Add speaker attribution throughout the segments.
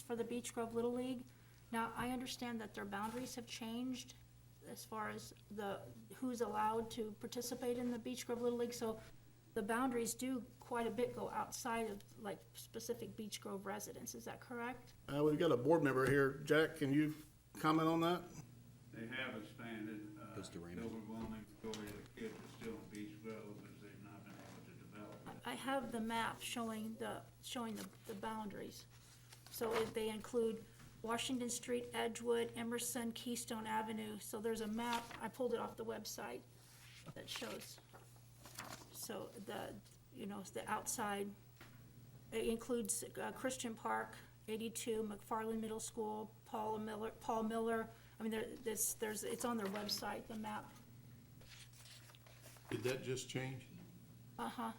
Speaker 1: for the Beech Grove Little League. Now, I understand that their boundaries have changed as far as the, who's allowed to participate in the Beech Grove Little League, so the boundaries do quite a bit go outside of like specific Beech Grove residents, is that correct?
Speaker 2: Uh, we've got a board member here. Jack, can you comment on that?
Speaker 3: They have expanded, uh,
Speaker 4: Goes to
Speaker 3: the
Speaker 4: Raymond.
Speaker 3: overwhelming majority of the kids are still in Beach Grove, because they've not been able to develop it.
Speaker 1: I have the map showing the, showing the, the boundaries. So if they include Washington Street, Edgewood, Emerson, Keystone Avenue, so there's a map, I pulled it off the website that shows. So the, you know, it's the outside, it includes uh, Christian Park, eighty-two, McFarland Middle School, Paul Miller, Paul Miller, I mean, there, this, there's, it's on their website, the map,
Speaker 5: Did that just change?
Speaker 1: uh-huh.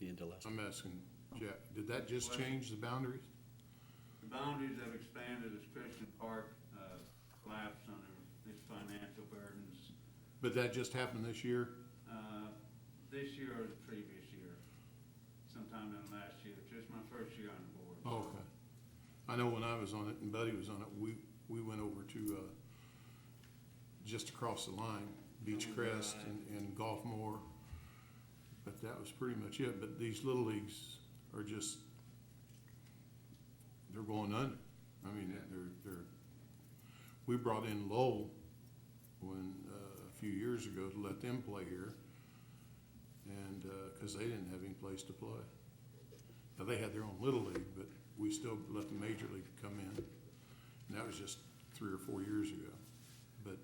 Speaker 4: The end of last.
Speaker 5: I'm asking Jack, did that just change the boundaries?
Speaker 3: The boundaries have expanded as Christian Park, uh, collapsed under its financial burdens,
Speaker 5: But that just happened this year?
Speaker 3: uh, this year or the previous year, sometime in last year, which is my first year on the board.
Speaker 5: Oh, Okay. I know when I was on it and Buddy was on it, we, we went over to, uh, just across the line, Beach Crest and, and Gulf Moore. But that was pretty much it. But these little leagues are just, they're going under. I mean, they're, they're, we brought in Lowell when, uh, a few years ago to let them play here. And, uh, cause they didn't have any place to play. Now, they had their own little league, but we still let the major league come in. And that was just three or four years ago. But,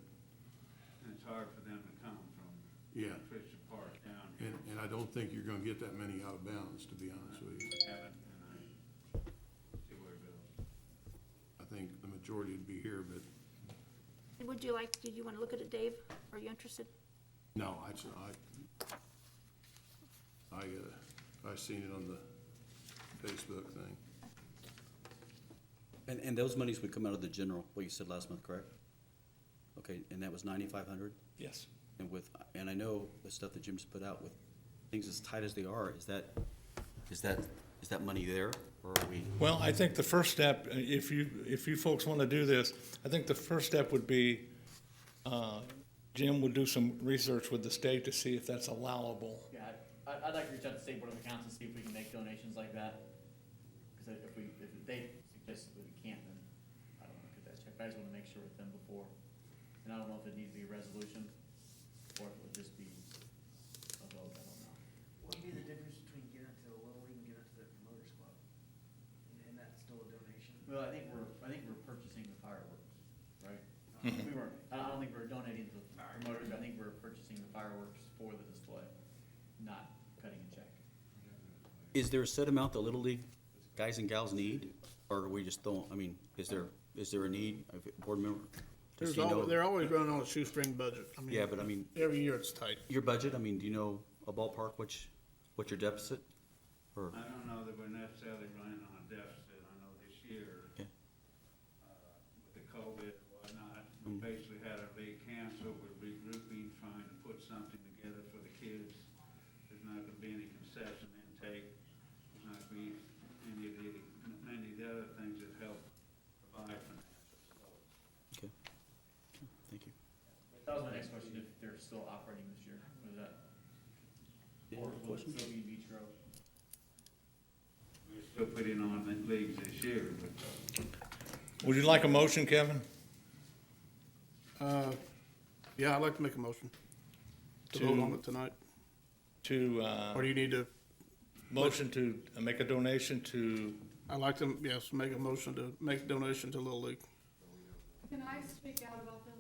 Speaker 3: And it's hard for them to come from
Speaker 5: yeah,
Speaker 3: Christian Park down here,
Speaker 5: and, and I don't think you're gonna get that many out of bounds, to be honest with you.
Speaker 3: haven't, and I see where it goes.
Speaker 5: I think the majority would be here, but
Speaker 1: Would you like, do you wanna look at it, Dave? Are you interested?
Speaker 5: no, I, ju- I, I, uh, I seen it on the Facebook thing.
Speaker 4: And, and those monies would come out of the general, what you said last month, correct? Okay, and that was ninety-five hundred?
Speaker 6: Yes.
Speaker 4: And with, and I know the stuff that Jim's put out with things as tight as they are, is that, is that, is that money there? Or are we,
Speaker 6: Well, I think the first step, uh, if you, if you folks want to do this, I think the first step would be, uh, Jim would do some research with the state to see if that's allowable.
Speaker 7: Yeah, I'd, I'd like to reach out to state board of accounts and see if we can make donations like that. Because if we, if they suggest that we can't, then I don't want to cut that check. I just want to make sure with them before. And I don't know if it needs to be a resolution or if it would just be a vote, I don't know.
Speaker 8: What would be the difference between giving it to the Little League and giving it to the promoters club? And- And that's still a donation?
Speaker 7: Well, I think we're, I think we're purchasing the fireworks, right? Uh, We weren't, I don't think we're donating to the promoters, I think we're purchasing the fireworks for the display, not cutting a check.
Speaker 4: is there a set amount that Little League guys and gals need? Or are we just throwing, I mean, is there, is there a need, of a board member?
Speaker 2: There's
Speaker 4: Does he know-
Speaker 2: al- they're always running on a shoestring budget. I mean,
Speaker 4: Yeah, but I mean,
Speaker 2: Every year it's tight.
Speaker 4: your budget, I mean, do you know a ballpark, which, what's your deficit? Or,
Speaker 3: I don't know that we're necessarily running on a deficit, I know this year,
Speaker 4: Okay.
Speaker 3: uh, with the COVID and whatnot, we basically had our league canceled, we're regrouping, trying to put something together for the kids. There's not gonna be any concession intake, there's not gonna be any of the, any of the other things that help provide financial support.
Speaker 4: okay, thank you.
Speaker 7: That was my next question, if they're still operating this year, was that? Or will it
Speaker 4: Questions?
Speaker 7: still be Beach Grove?
Speaker 3: We're still putting on the leagues this year, but
Speaker 6: Would you like a motion, Kevin?
Speaker 2: Uh, yeah, I'd like to make a motion to vote on it tonight.
Speaker 6: To, uh,
Speaker 2: Or do you need to,
Speaker 6: motion to make a donation to,
Speaker 2: I'd like to, yes, make a motion to make a donation to Little League.
Speaker 9: Can I speak out about this?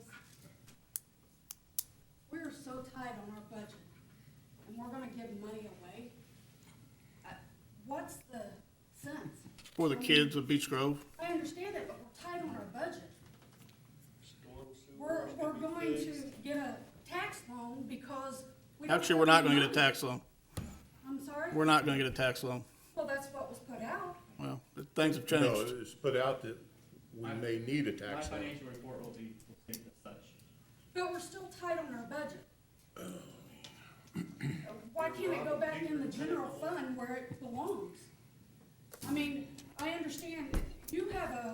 Speaker 9: We're so tight on our budget, and we're gonna give money away. I- What's the sense?
Speaker 2: For the kids of Beach Grove.
Speaker 9: I understand that, but we're tight on our budget. We're, we're going to get a tax loan because we. don't
Speaker 2: Actually, we're not
Speaker 9: have
Speaker 2: gonna
Speaker 9: any
Speaker 2: get a
Speaker 9: money.
Speaker 2: tax loan.
Speaker 9: I'm sorry?
Speaker 2: We're not gonna get a tax loan.
Speaker 9: Well, that's what was put out.
Speaker 2: Well, things have
Speaker 5: No,
Speaker 2: changed.
Speaker 5: it's put out that we may need a
Speaker 7: My
Speaker 5: tax levy.
Speaker 7: financial report will be, will state as such.
Speaker 9: But we're still tight on our budget. Uh, Why can't it go back in the general fund where it belongs? I mean, I understand you have a